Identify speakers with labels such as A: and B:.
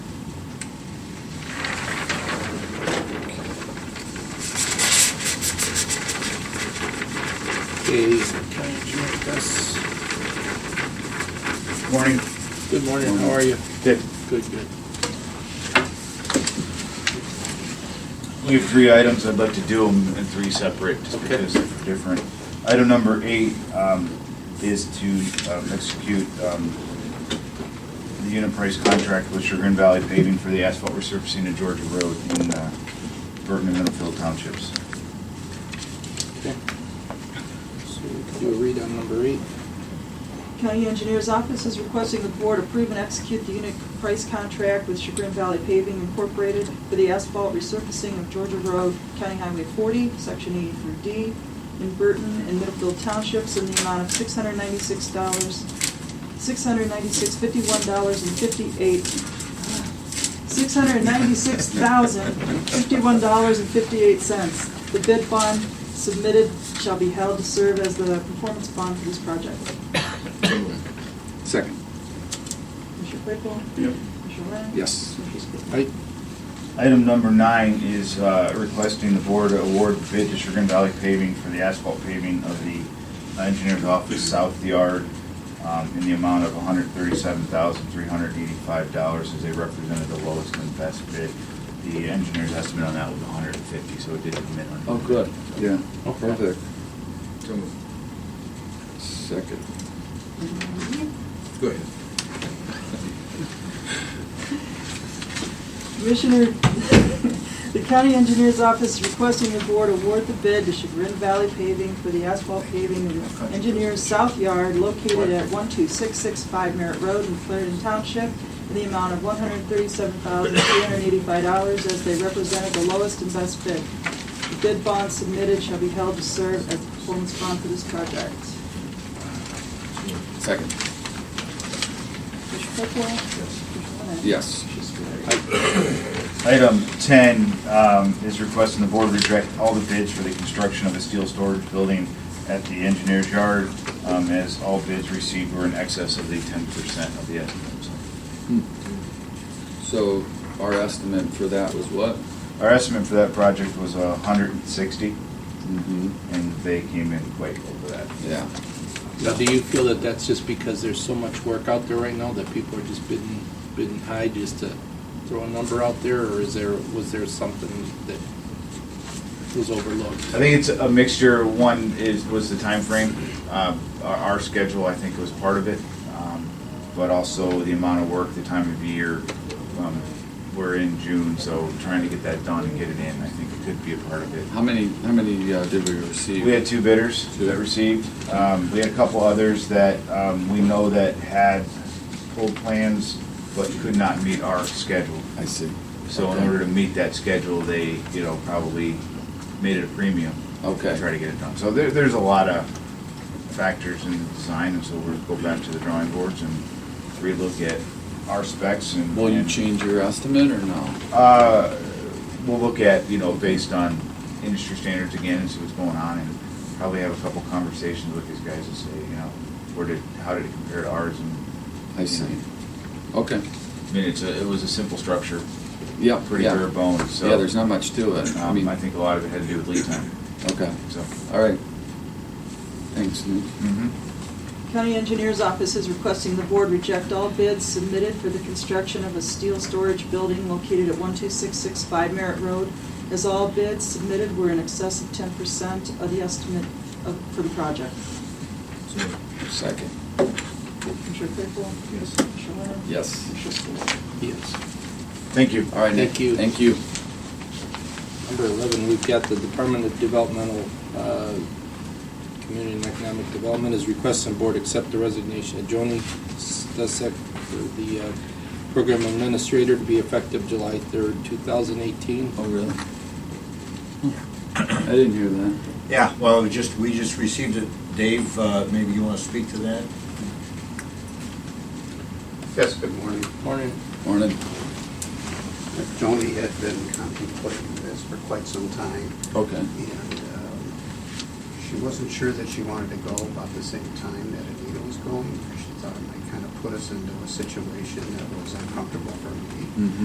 A: is County Engineer Gus.
B: Morning.
A: Good morning, how are you?
B: Good.
A: Good, good.
B: We have three items, I'd like to do them in three separate, just
A: Okay.
B: because they're different. Item number eight um, is to um, execute um, the unit price contract with Sugar and Valley paving for the asphalt resurfacing of Georgia Road in uh, Burton and Middlefield Townships.
A: Okay. So we can do a read on number eight.
C: County Engineer's Office is requesting the board approve and execute the unit price contract with Chagrin Valley Paving Incorporated for the asphalt resurfacing of Georgia Road, County Highway 40, Section 80 through D, in Burton and Middlefield Townships in the amount of $696, $696.51.58, $696,051.58. The bid bond submitted shall be held to serve as the performance bond for this project.
D: Second.
C: Mr. Claypool?
B: Yep.
C: Mr. Ryan?
D: Yes.
C: Mr. Speaker?
A: Right?
B: Item number nine is uh, requesting the board award bid to Sugar and Valley paving for the asphalt paving of the engineer's office south yard um, in the amount of $137,385 as they represented the lowest and best bid. The engineer's estimate on that was 150, so it did come in under.
D: Yeah.
A: Okay.
D: Perfect. Second. Go ahead.
C: Commissioner, the county engineer's office is requesting the board award the bid to Chagrin Valley Paving for the asphalt paving of Engineers South Yard located at 12665 Merritt Road in Clarendon Township in the amount of $137,385 as they represented the lowest and best bid. The bid bond submitted shall be held to serve as performance bond for this project.
B: Uh,
D: Second.
C: Mr. Claypool? Mr. Ryan?
D: Yes.
B: Item 10 um, is requesting the board reject all the bids for the construction of a steel storage building at the engineer's yard, um, as all bids received were in excess of the 10% of the estimate. So
D: So our estimate for that was what?
B: Our estimate for that project was uh, 160,
D: Mm-hmm.
B: and they came in quite over that.
D: Yeah.
A: Now, do you feel that that's just because there's so much work out there right now that people are just bidding, bidding high just to throw a number out there? Or is there, was there something that was overlooked?
B: I think it's a mixture. One is, was the time timeframe. Uh, Our our schedule, I think, was part of it, um, but also the amount of work, the time of year. Um, We're in June, so trying to get that done and get it in, I think it could be a part of it.
D: How many, how many uh, did we receive?
B: We had two bidders
D: Two.
B: that received. Um, We had a couple others that um, we know that had pulled plans but could not meet our schedule.
D: I see.
B: So in
D: Okay.
B: order to meet that schedule, they, you know, probably made it a premium.
D: Okay.
B: To try to get it done. So there, there's a lot of factors in the design, and so we'll go back to the drawing boards and relook at our specs and.
D: Will you
B: and,
D: change your estimate or no?
B: Uh, we'll look at, you know, based on industry standards again and see what's going on and probably have a couple conversations with these guys and say, you know, where did, how did it compare to ours and.
D: I
B: you
D: see.
B: know.
D: Okay.
B: I mean, it's a, it was a simple structure,
D: Yeah.
B: pretty
D: yeah.
B: bare bones, so.
D: Yeah, there's not much to it. I mean,
B: Um, I think a lot of it had to do with lead time,
D: okay.
B: so.
D: All right. Thanks, Nick.
B: mhm.
C: County Engineers Office is requesting the board reject all bids submitted for the construction of a steel storage building located at 12665 Merritt Road, as all bids submitted were in excess of 10% of the estimate of- for the project.
D: Second.
C: Commissioner Claypool?
B: Yes.
C: Commissioner Lennon?
D: Yes.
C: Commissioner Spillier?
A: Yes.
B: Thank you.
D: All right, Nick.
A: Thank you.
D: Thank you.
A: Number 11, we've got the Department of Developmental, uh, Community and Economic Development is requesting board accept the resignation of Joni Stasek, for the uh, program administrator, to be effective July 3rd, 2018.
D: Oh, really? I didn't hear that.
E: Yeah, well, we just, we just received it. Dave, uh, maybe you want to speak to that?
F: Yes, good morning.
A: Morning.
D: Morning.
F: Joni had been contemplating this for quite some time,
D: Okay.
F: and um, she wasn't sure that she wanted to go about the same time that Anita was going. She thought it might kind of put us into a situation that was uncomfortable for me.
D: Mhm.